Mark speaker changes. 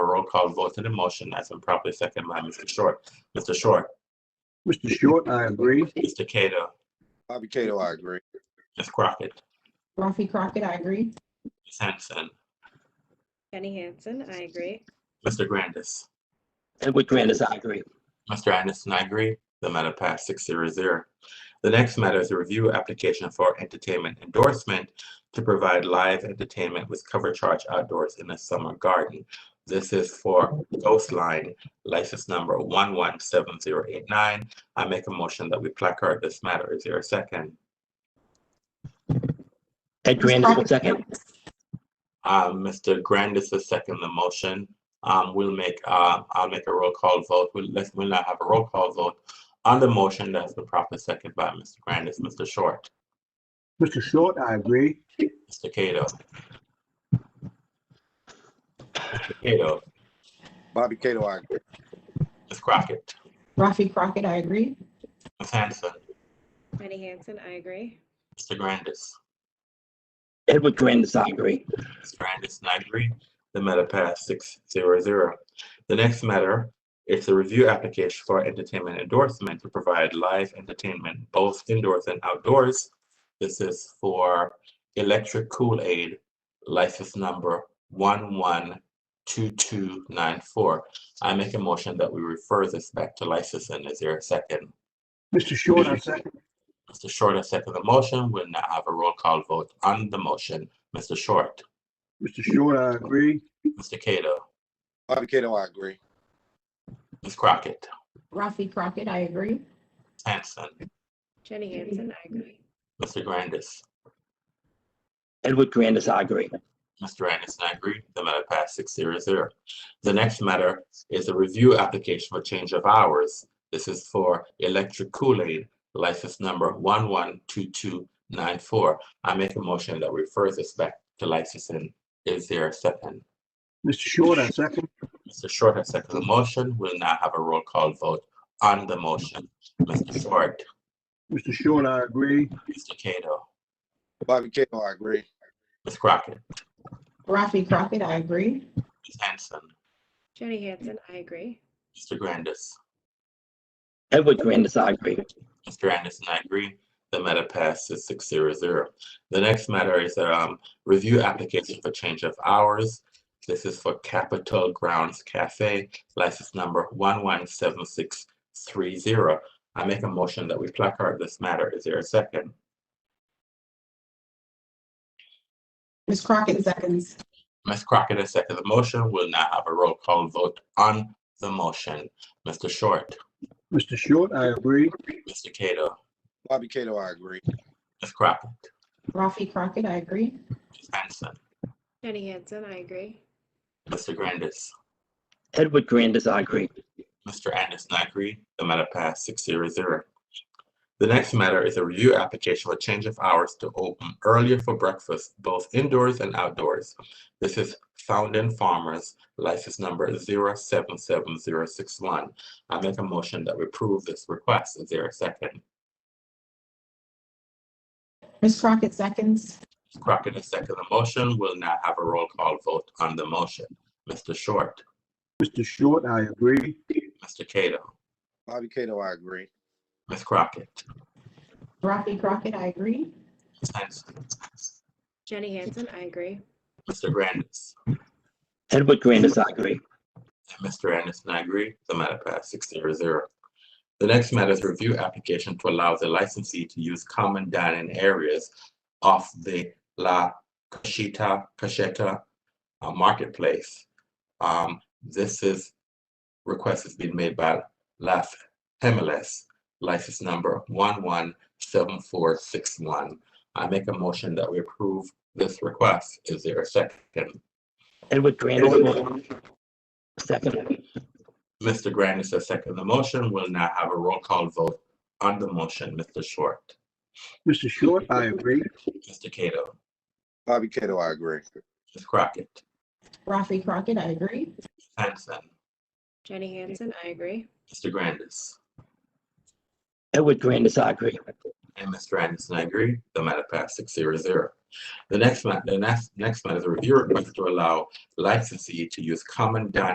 Speaker 1: roll call vote to the motion as been properly seconded by Mr. Short. Mr. Short,
Speaker 2: Mr. Short, I agree.
Speaker 1: Mr. Cato,
Speaker 3: Bobby Cato, I agree.
Speaker 1: Ms. Crockett,
Speaker 4: Rafi Crockett, I agree.
Speaker 1: Ms. Hanson,
Speaker 5: Jenny Hansen, I agree.
Speaker 1: Mr. Grandis.
Speaker 6: Edward Grandis, I agree.
Speaker 1: Mr. Anderson, I agree. The matter passed six zero zero. The next matter is a review application for entertainment endorsement to provide live entertainment with cover charge outdoors in the summer garden. This is for Ghost Line, license number one one seven zero eight nine. I make a motion that we placard this matter. Is there a second?
Speaker 6: Ed Grandis will second.
Speaker 1: Um, Mr. Grandis is second the motion. Um, we'll make, uh, I'll make a roll call vote. We'll, let's, we'll not have a roll call vote on the motion that's been properly seconded by Mr. Grandis, Mr. Short,
Speaker 2: Mr. Short, I agree.
Speaker 1: Mr. Cato. Mr. Cato,
Speaker 3: Bobby Cato, I agree.
Speaker 1: Ms. Crockett,
Speaker 4: Rafi Crockett, I agree.
Speaker 1: Ms. Hanson,
Speaker 5: Jenny Hansen, I agree.
Speaker 1: Mr. Grandis.
Speaker 6: Edward Grandis, I agree.
Speaker 1: Mr. Anderson, I agree. The matter passed six zero zero. The next matter is a review application for entertainment endorsement to provide live entertainment both indoors and outdoors. This is for Electric Kool Aid, license number one one two two nine four. I make a motion that we refer this back to licensing. Is there a second?
Speaker 2: Mr. Short, I second.
Speaker 1: Mr. Short has seconded the motion. We'll now have a roll call vote on the motion. Mr. Short,
Speaker 2: Mr. Short, I agree.
Speaker 1: Mr. Cato,
Speaker 3: Bobby Cato, I agree.
Speaker 1: Ms. Crockett.
Speaker 4: Rafi Crockett, I agree.
Speaker 1: Hanson,
Speaker 5: Jenny Hansen, I agree.
Speaker 1: Mr. Grandis,
Speaker 6: Edward Grandis, I agree.
Speaker 1: Mr. Anderson, I agree. The matter passed six zero zero. The next matter is a review application for change of hours. This is for Electric Kool-Aid, license number one one two two nine four. I make a motion that refers this back to licensing. Is there a second?
Speaker 2: Mr. Short, I second.
Speaker 1: Mr. Short has seconded the motion. We'll now have a roll call vote on the motion. Mr. Short,
Speaker 2: Mr. Short, I agree.
Speaker 1: Mr. Cato,
Speaker 3: Bobby Cato, I agree.
Speaker 1: Ms. Crockett,
Speaker 4: Rafi Crockett, I agree.
Speaker 1: Ms. Hanson,
Speaker 5: Jenny Hansen, I agree.
Speaker 1: Mr. Grandis.
Speaker 6: Edward Grandis, I agree.
Speaker 1: Mr. Anderson, I agree. The matter passes six zero zero. The next matter is um review application for change of hours. This is for Capitol Grounds Cafe, license number one one seven six three zero. I make a motion that we placard this matter. Is there a second?
Speaker 4: Ms. Crockett seconds.
Speaker 1: Ms. Crockett has seconded the motion. We'll now have a roll call vote on the motion. Mr. Short,
Speaker 2: Mr. Short, I agree.
Speaker 1: Mr. Cato,
Speaker 3: Bobby Cato, I agree.
Speaker 1: Ms. Crockett,
Speaker 4: Rafi Crockett, I agree.
Speaker 1: Ms. Hanson,
Speaker 5: Jenny Hansen, I agree.
Speaker 1: Mr. Grandis.
Speaker 6: Edward Grandis, I agree.
Speaker 1: Mr. Anderson, I agree. The matter passed six zero zero. The next matter is a review application for change of hours to open earlier for breakfast, both indoors and outdoors. This is Fountain Farmers, license number zero seven seven zero six one. I make a motion that we approve this request. Is there a second?
Speaker 4: Ms. Crockett seconds.
Speaker 1: Crockett has seconded the motion. We'll now have a roll call vote on the motion. Mr. Short,
Speaker 2: Mr. Short, I agree.
Speaker 1: Mr. Cato,
Speaker 3: Bobby Cato, I agree.
Speaker 1: Ms. Crockett,
Speaker 4: Rafi Crockett, I agree.
Speaker 1: Ms. Hanson,
Speaker 5: Jenny Hansen, I agree.
Speaker 1: Mr. Grandis.
Speaker 6: Edward Grandis, I agree.
Speaker 1: And Mr. Anderson, I agree. The matter passed six zero zero. The next matter is review application to allow the licensee to use common dining areas off the La Cachita, Cacheta uh, Marketplace. Um, this is, request has been made by Las Hemeles, license number one one seven four six one. I make a motion that we approve this request. Is there a second?
Speaker 6: Edward Grandis, second.
Speaker 1: Mr. Grandis has seconded the motion. We'll now have a roll call vote on the motion. Mr. Short,
Speaker 2: Mr. Short, I agree.
Speaker 1: Mr. Cato,
Speaker 3: Bobby Cato, I agree.
Speaker 1: Ms. Crockett,
Speaker 4: Rafi Crockett, I agree.
Speaker 1: Hanson,
Speaker 5: Jenny Hansen, I agree.
Speaker 1: Mr. Grandis,
Speaker 6: Edward Grandis, I agree.
Speaker 1: and Mr. Anderson, I agree. The matter passed six zero zero. The next matter, the next, next matter is a review request to allow licensee to use common dining